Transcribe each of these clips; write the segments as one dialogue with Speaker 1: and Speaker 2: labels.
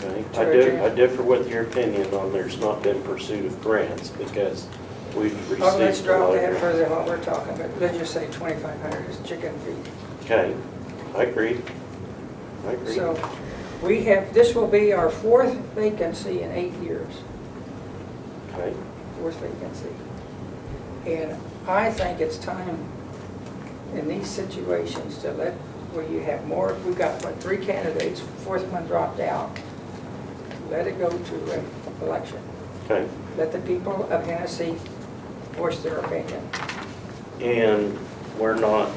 Speaker 1: I
Speaker 2: Georgia.
Speaker 1: di- I differ with your opinion on there's not been pursuit of grants because we've received.
Speaker 2: Oh, let's
Speaker 1: a
Speaker 2: drop
Speaker 1: lot of
Speaker 2: that
Speaker 1: grants.
Speaker 2: further than what we're talking, but let's just say twenty-five hundred is chicken feed.
Speaker 1: Okay, I agree. I agree.
Speaker 2: So we have, this will be our fourth vacancy in eight years,
Speaker 1: Okay,
Speaker 2: fourth vacancy. And I think it's time in these situations to let, where you have more, we've got, what, three candidates, fourth one dropped out. Let it go to an election.
Speaker 1: okay.
Speaker 2: Let the people of Hennessy voice their opinion.
Speaker 1: And we're not,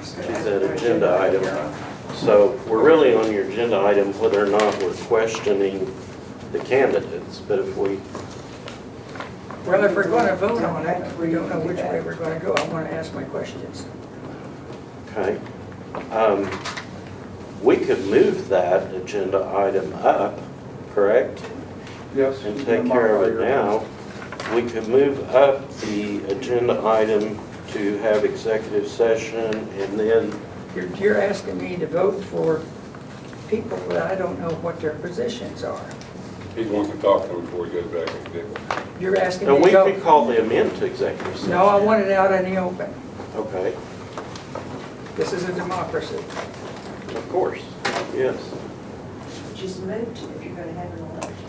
Speaker 2: Is
Speaker 1: she's an agenda item. So we're really on your agenda item whether or not we're questioning the candidates. But if we,
Speaker 2: Well, if we're going to vote on it, we don't know which way we're going to go. I want to ask my questions.
Speaker 1: okay. Um, We could move that agenda item up, correct?
Speaker 3: Yes.
Speaker 1: and take care of it now, we could move up the agenda item to have executive session and then,
Speaker 2: You're, you're asking me to vote for people that I don't know what their positions are.
Speaker 4: He's wanting to talk to him before he goes back and get.
Speaker 2: You're asking
Speaker 1: and
Speaker 2: me
Speaker 1: we
Speaker 2: to
Speaker 1: could
Speaker 2: go.
Speaker 1: call them into executive session.
Speaker 2: No, I want it out in the open.
Speaker 1: Okay,
Speaker 2: This is a democracy.
Speaker 1: of course, yes.
Speaker 5: Just moot if you're gonna have an election.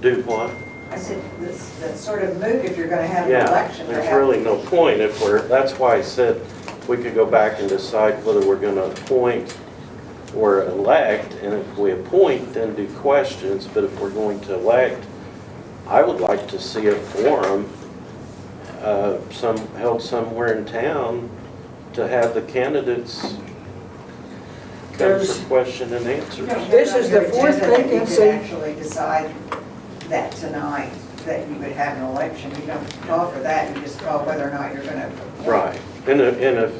Speaker 1: Do what?
Speaker 5: I said, that's, that's sort of moot if you're gonna have an
Speaker 1: Yeah,
Speaker 5: election. to
Speaker 1: there's
Speaker 5: have-
Speaker 1: really no point if we're, that's why I said we could go back and decide whether we're gonna appoint or elect, and if we appoint, then do questions, but if we're going to elect, I would like to see a forum, uh, some, held somewhere in town to have the candidates come
Speaker 2: There's-
Speaker 1: for question and answers.
Speaker 5: No,
Speaker 2: This is the
Speaker 5: your
Speaker 2: fourth
Speaker 5: agenda that
Speaker 2: vacancy.
Speaker 5: You could actually decide that tonight, that you would have an election. You don't call for that, you just call whether or not you're gonna.
Speaker 1: Right, and if, and if,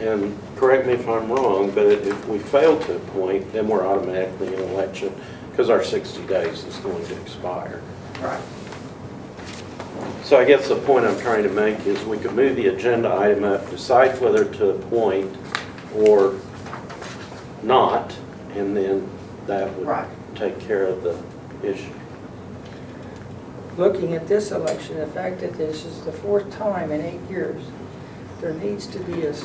Speaker 1: and correct me if I'm wrong, but if we fail to appoint, then we're automatically in election, because our 60 days is going to expire.
Speaker 5: Right.
Speaker 1: So I guess the point I'm trying to make is we could move the agenda item up, decide whether to appoint or not, and then that would
Speaker 5: Right.
Speaker 1: take care of the issue.
Speaker 2: Looking at this election, the fact that this is the fourth time in eight years, there needs to be a s-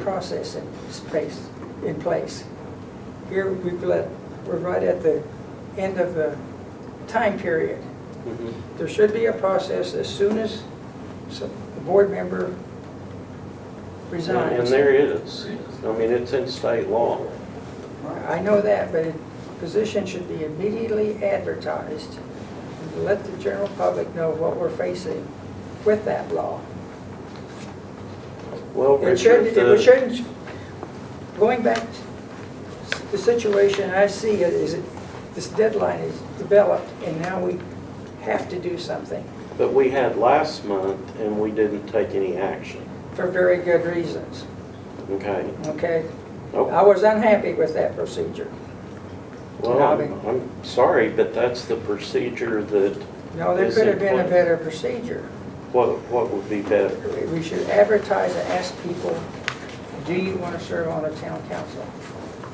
Speaker 2: process in space, in place. Here, we've let, we're right at the end of the time period. There should be a process as soon as some- a board member
Speaker 1: And
Speaker 2: resigns.
Speaker 1: there is, I mean, it's in state law.
Speaker 2: I know that, but a position should be immediately advertised. Let the general public know what we're facing with that law.
Speaker 1: Well,
Speaker 2: It shouldn't,
Speaker 1: Richard,
Speaker 2: it
Speaker 1: the-
Speaker 2: shouldn't, going back, s- the situation I see it is, it- this deadline is developed, and now we have to do something
Speaker 1: But we had last month and we didn't take any action,
Speaker 2: for very good reasons,
Speaker 1: okay?
Speaker 2: okay? I
Speaker 1: Nope.
Speaker 2: was unhappy with that procedure.
Speaker 1: Well, I'm, I'm sorry, but that's the procedure that,
Speaker 2: No, there
Speaker 1: Is
Speaker 2: could have
Speaker 1: it
Speaker 2: been a
Speaker 1: what-
Speaker 2: better procedure.
Speaker 1: what, what would be better?
Speaker 2: We we should advertise and ask people, do you want to serve on the town council?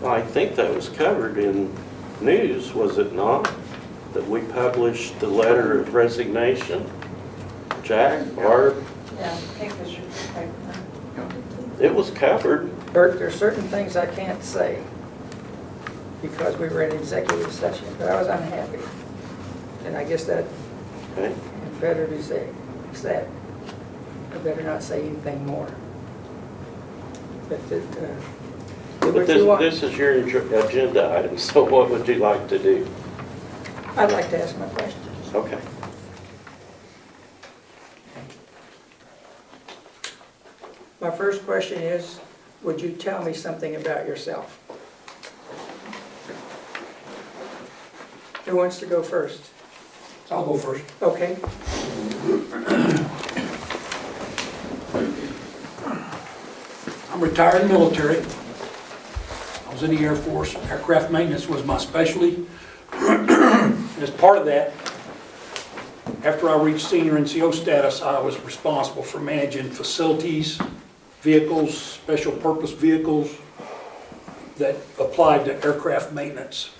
Speaker 1: I think that was covered in news, was it not? That we published the letter of resignation? Jack, Barb,
Speaker 5: Yeah, take this, take that.
Speaker 1: it was covered.
Speaker 2: Bert, there are certain things I can't say because we were in executive session, but I was unhappy. And I guess that
Speaker 1: Okay,
Speaker 2: better be said, said. I better not say anything more. But the, uh, do
Speaker 1: But
Speaker 2: what you
Speaker 1: this,
Speaker 2: want.
Speaker 1: this is your ag- agenda item, so what would you like to do?
Speaker 2: I'd like to ask my questions.
Speaker 1: Okay.
Speaker 2: My first question is, would you tell me something about yourself? Who wants to go first?
Speaker 6: I'll go first.
Speaker 2: Okay,
Speaker 6: I'm retired military. I was in the Air Force. Aircraft maintenance was my specialty. As part of that, after I reached senior NCO status, I was responsible for managing facilities, vehicles, special purpose vehicles that applied to aircraft maintenance.